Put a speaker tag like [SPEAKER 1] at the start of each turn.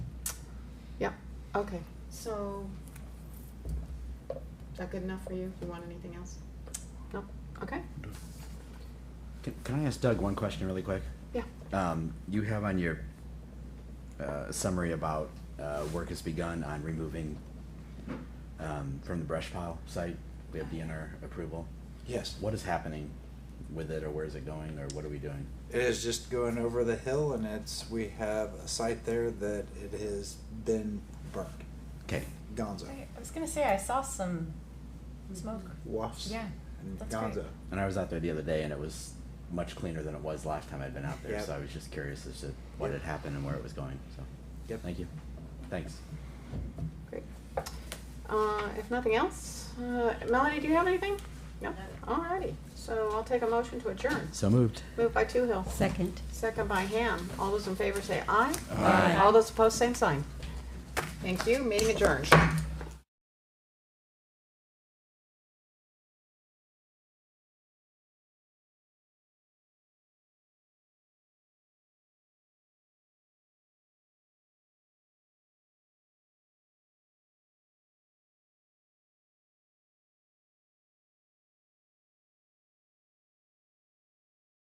[SPEAKER 1] Yep, okay.
[SPEAKER 2] So, is that good enough for you? Do you want anything else?
[SPEAKER 1] No, okay,
[SPEAKER 3] Can, can I ask Doug one question really quick?
[SPEAKER 1] yeah.
[SPEAKER 3] Um, you have on your uh, summary about uh, work has begun on removing um, from the brush pile site. We have DNR approval.
[SPEAKER 4] Yes,
[SPEAKER 3] What is happening with it, or where is it going, or what are we doing?
[SPEAKER 4] it is just going over the hill, and it's we have a site there that it has been burnt,
[SPEAKER 3] Okay.
[SPEAKER 4] Gonzo,
[SPEAKER 5] I I was gonna say I saw some smoke.
[SPEAKER 4] wafts,
[SPEAKER 5] Yeah,
[SPEAKER 4] and
[SPEAKER 5] that's
[SPEAKER 4] Gonzo.
[SPEAKER 5] great.
[SPEAKER 3] And I was out there the other day, and it was much cleaner than it was last time I'd been out there.
[SPEAKER 4] Yep.
[SPEAKER 3] So I was just curious as to what
[SPEAKER 4] Yep.
[SPEAKER 3] had happened and where it was going. So.
[SPEAKER 4] Yep.
[SPEAKER 3] Thank you. Thanks.
[SPEAKER 1] Great. Uh, If nothing else, uh, Melanie, do you have anything? No? Alrighty, so I'll take a motion to adjourn.
[SPEAKER 3] So moved.
[SPEAKER 1] Moved by Toohill,
[SPEAKER 6] Second.
[SPEAKER 1] second by Ham. All those in favor say aye.
[SPEAKER 3] Aye.
[SPEAKER 1] All those opposed, same sign. Thank you, meeting adjourned.